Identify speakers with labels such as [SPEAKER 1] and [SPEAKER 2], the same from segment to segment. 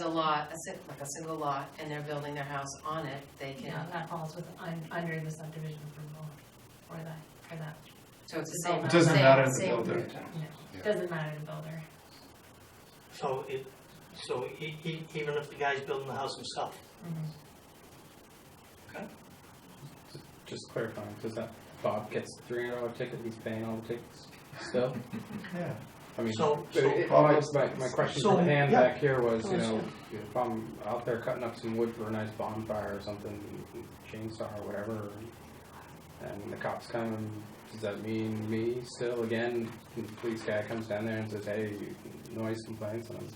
[SPEAKER 1] a lot, a si- like a single lot, and they're building their house on it, they
[SPEAKER 2] you know,
[SPEAKER 1] can,
[SPEAKER 2] that falls with, un- under the subdivision approval for that, for that,
[SPEAKER 1] so it's the same.
[SPEAKER 2] It
[SPEAKER 3] doesn't
[SPEAKER 1] same-
[SPEAKER 3] matter to the
[SPEAKER 1] same
[SPEAKER 3] builder.
[SPEAKER 1] route.
[SPEAKER 2] you
[SPEAKER 4] Yeah.
[SPEAKER 2] know, doesn't matter to builder.
[SPEAKER 5] So it, so e- e- even if the guy's building the house himself,
[SPEAKER 6] Just clarifying, does that, Bob gets a three hundred dollar ticket, he's paying all the tickets still?
[SPEAKER 3] Yeah.
[SPEAKER 6] I mean,
[SPEAKER 5] so,
[SPEAKER 6] but
[SPEAKER 5] so,
[SPEAKER 6] it- all I- my, my question
[SPEAKER 5] So,
[SPEAKER 6] from hand
[SPEAKER 5] yeah.
[SPEAKER 6] back here was, you
[SPEAKER 2] Oh,
[SPEAKER 6] know, if I'm out there cutting up some wood for a nice bonfire or something, chainsaw or whatever, and the cops come, does that mean me still again? The Police guy comes down there and says, hey, noise complaints, and I'm.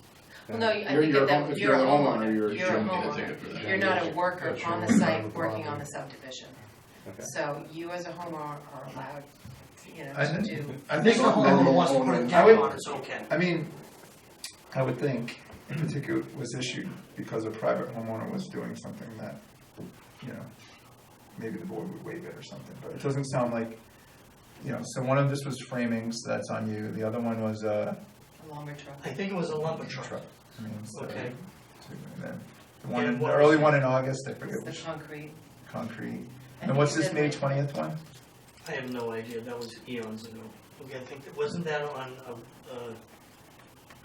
[SPEAKER 1] Well, no, I
[SPEAKER 4] You're-
[SPEAKER 1] think
[SPEAKER 4] you're
[SPEAKER 1] that
[SPEAKER 4] a home-
[SPEAKER 1] that,
[SPEAKER 4] if
[SPEAKER 1] you're a homeowner,
[SPEAKER 4] you're-
[SPEAKER 1] you're a
[SPEAKER 4] you don't get a
[SPEAKER 1] homeowner,
[SPEAKER 4] ticket for that.
[SPEAKER 1] you're not a worker
[SPEAKER 3] That's your
[SPEAKER 1] on the
[SPEAKER 3] own
[SPEAKER 1] site
[SPEAKER 3] private
[SPEAKER 1] working on
[SPEAKER 3] property.
[SPEAKER 1] the subdivision.
[SPEAKER 6] Okay.
[SPEAKER 1] So you as a homeowner are allowed, you know,
[SPEAKER 3] I
[SPEAKER 1] to
[SPEAKER 3] think-
[SPEAKER 1] do.
[SPEAKER 3] I
[SPEAKER 5] this
[SPEAKER 3] think,
[SPEAKER 4] Mr.
[SPEAKER 5] homeowner wants to put a
[SPEAKER 4] homeowner-
[SPEAKER 3] I
[SPEAKER 5] deck
[SPEAKER 3] would-
[SPEAKER 5] on, it's okay.
[SPEAKER 3] I mean, I would think if the ticket was issued because a private homeowner was doing something that, you know, maybe the board would waive it or something, but it doesn't sound like, you know, so one of this was framing, so that's on you, the other one was, uh,
[SPEAKER 1] A longer truck.
[SPEAKER 5] I think it was a lumber truck.
[SPEAKER 3] truck. I mean, so,
[SPEAKER 5] Okay.
[SPEAKER 3] two, and then the one,
[SPEAKER 5] And
[SPEAKER 3] in- the
[SPEAKER 5] what
[SPEAKER 3] early
[SPEAKER 5] was-
[SPEAKER 3] one in August, I forget
[SPEAKER 1] It's the
[SPEAKER 3] which,
[SPEAKER 1] concrete.
[SPEAKER 3] concrete,
[SPEAKER 1] I
[SPEAKER 3] and
[SPEAKER 1] think
[SPEAKER 3] what's
[SPEAKER 1] you
[SPEAKER 3] this
[SPEAKER 1] said
[SPEAKER 3] May
[SPEAKER 1] like-
[SPEAKER 3] twentieth one?
[SPEAKER 5] I have no idea, that was eons ago. Okay, I think, that wasn't that on, uh, uh,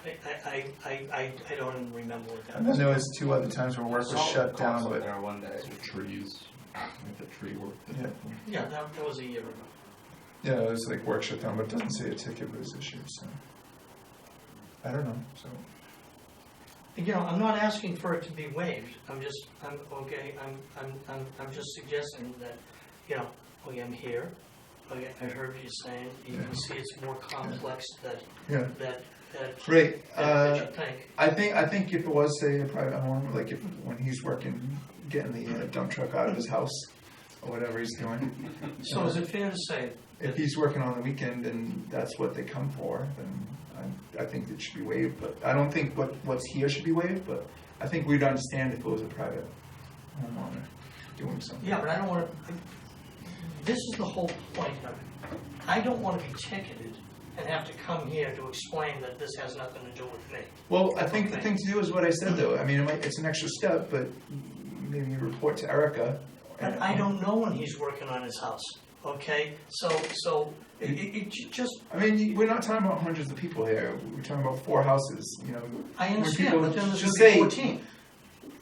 [SPEAKER 5] I, I, I, I, I don't even remember what that
[SPEAKER 3] And then
[SPEAKER 5] was.
[SPEAKER 3] there was two other times where work was shut down, but,
[SPEAKER 7] There one day. Trees, the tree work.
[SPEAKER 3] yeah,
[SPEAKER 5] Yeah, that, that was a year ago.
[SPEAKER 3] yeah, it was like work shut down, but it doesn't say a ticket was issued, so. I don't know, so,
[SPEAKER 5] You know, I'm not asking for it to be waived, I'm just, I'm, okay, I'm, I'm, I'm, I'm just suggesting that, you know, okay, I'm here, okay, I heard you saying, you can see it's more complex than,
[SPEAKER 3] yeah,
[SPEAKER 5] that, that,
[SPEAKER 3] great,
[SPEAKER 5] that
[SPEAKER 3] uh,
[SPEAKER 5] you think.
[SPEAKER 3] I think, I think if it was, say, a private home, like if, when he's working, getting the uh, dump truck out of his house, or whatever he's doing,
[SPEAKER 5] So is it fair to say,
[SPEAKER 3] if he's working on the weekend and that's what they come for, then I, I think it should be waived, but I don't think what, what's here should be waived, but I think we'd understand if it was a private homeowner doing something.
[SPEAKER 5] yeah, but I don't wanna, this is the whole point of it. I don't wanna be ticketed and have to come here to explain that this has nothing to do with me.
[SPEAKER 3] Well, I think the thing to do is what I said though, I mean, it might, it's an extra step, but maybe you report to Erica.
[SPEAKER 5] And I don't know when he's working on his house, okay? So, so, it, it, it ju- just,
[SPEAKER 3] I mean, you- we're not talking about hundreds of people here, we're talking about four houses, you know,
[SPEAKER 5] I
[SPEAKER 3] When
[SPEAKER 5] understand,
[SPEAKER 3] people
[SPEAKER 5] but then there's
[SPEAKER 3] just
[SPEAKER 5] gonna be
[SPEAKER 3] say-
[SPEAKER 5] fourteen.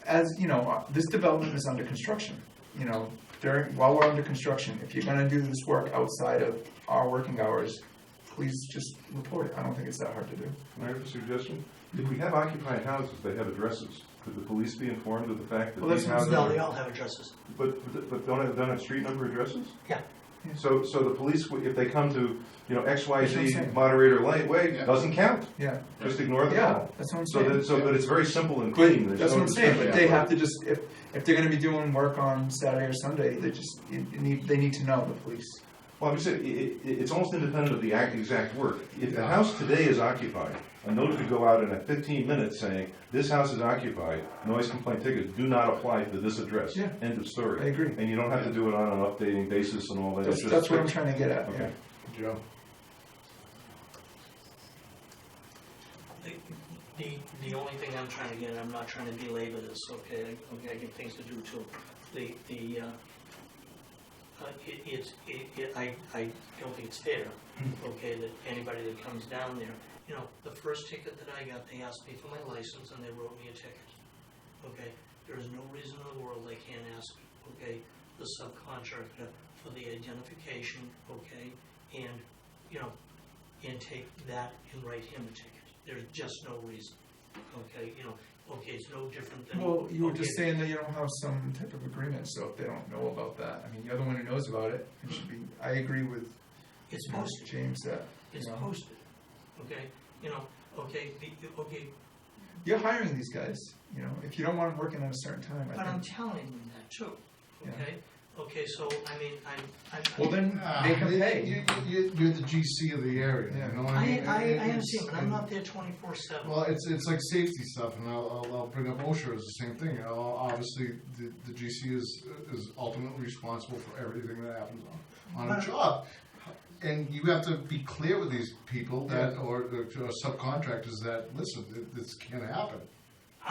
[SPEAKER 3] as, you know, uh, this development is under construction, you know, during, while we're under construction, if you're gonna do this work outside of our working hours, please just report it, I don't think it's that hard to do.
[SPEAKER 8] Can I have a suggestion? If we have occupied houses, they have addresses. Could the police be informed of the fact that
[SPEAKER 3] Well,
[SPEAKER 8] these
[SPEAKER 3] that's-
[SPEAKER 8] houses?
[SPEAKER 5] No,
[SPEAKER 8] are-
[SPEAKER 5] they all have addresses.
[SPEAKER 8] But, but- but don't have, don't have street number addresses?
[SPEAKER 5] Yeah.
[SPEAKER 3] Yeah.
[SPEAKER 8] So, so the police, would- if they come to, you know, X, Y,
[SPEAKER 3] That's what I'm
[SPEAKER 8] Z
[SPEAKER 3] saying.
[SPEAKER 8] moderator light way,
[SPEAKER 4] Yeah.
[SPEAKER 8] doesn't count.
[SPEAKER 3] Yeah,
[SPEAKER 8] Just ignore the
[SPEAKER 3] yeah,
[SPEAKER 8] call.
[SPEAKER 3] that's what I'm
[SPEAKER 8] So
[SPEAKER 3] saying.
[SPEAKER 8] that, so, but it's very simple and clean.
[SPEAKER 3] But
[SPEAKER 8] There's
[SPEAKER 3] that's
[SPEAKER 8] no
[SPEAKER 3] what I'm saying, but
[SPEAKER 8] discussion.
[SPEAKER 3] they have to just, if, if they're gonna be doing work on Saturday or Sunday, they just, you, you need, they need to know, the police.
[SPEAKER 8] Well, I'm just saying, i- i- it's almost independent of the act, exact work. If the house today is occupied, a note could go out in a fifteen minutes saying, this house is occupied, noise complaint tickets do not apply to this address.
[SPEAKER 3] Yeah.
[SPEAKER 8] End of story.
[SPEAKER 3] I agree.
[SPEAKER 8] And you don't have to do it on an updating basis and all that.
[SPEAKER 3] That's,
[SPEAKER 8] It's just-
[SPEAKER 3] that's what I'm trying to get at, yeah.
[SPEAKER 8] Okay.
[SPEAKER 4] Joe,
[SPEAKER 5] The, the- the only thing I'm trying to get, and I'm not trying to belabor this, okay, I- okay, I get things to do too. The, the, uh, uh, it, it's, it, it- I, I don't think it's fair,
[SPEAKER 3] Hmm.
[SPEAKER 5] okay, that anybody that comes down there, you know, the first ticket that I got, they asked me for my license and they wrote me a ticket. Okay, there is no reason in the world they can't ask, okay, the subcontractor for the identification, okay, and, you know, and take that and write him a ticket. There's just no reason, okay, you know, okay, it's no different than.
[SPEAKER 3] Well, you were
[SPEAKER 5] okay,
[SPEAKER 3] just saying that you don't have some type of agreement, so if they don't know about that, I mean, you're the one who knows about it, it should be, I agree with
[SPEAKER 5] It's
[SPEAKER 3] you know,
[SPEAKER 5] posted.
[SPEAKER 3] James that,
[SPEAKER 5] It's
[SPEAKER 3] Yeah.
[SPEAKER 5] posted, okay? You know, okay, the- okay,
[SPEAKER 3] you're hiring these guys, you know, if you don't want them working at a certain time,
[SPEAKER 5] but
[SPEAKER 3] I
[SPEAKER 5] I'm
[SPEAKER 3] think,
[SPEAKER 5] telling them that too,
[SPEAKER 3] Yeah.
[SPEAKER 5] okay? Okay, so, I mean, I'm, I'm.
[SPEAKER 3] well, then, make them pay.
[SPEAKER 4] You, you, you're the GC of the area,
[SPEAKER 3] Yeah.
[SPEAKER 4] you know what I
[SPEAKER 5] I,
[SPEAKER 4] mean?
[SPEAKER 5] I, I
[SPEAKER 3] uh,
[SPEAKER 4] It's-
[SPEAKER 5] understand, but I'm not there twenty-four seven.
[SPEAKER 4] Well, it's, it's like safety stuff, and I'll, I'll, I'll bring up OSHA as the same thing, you know, obviously, the, the GC is, is ultimately responsible for everything that happens on, on a job. And you have to be clear with these people that, or, or subcontractors that, listen, th- this can't happen.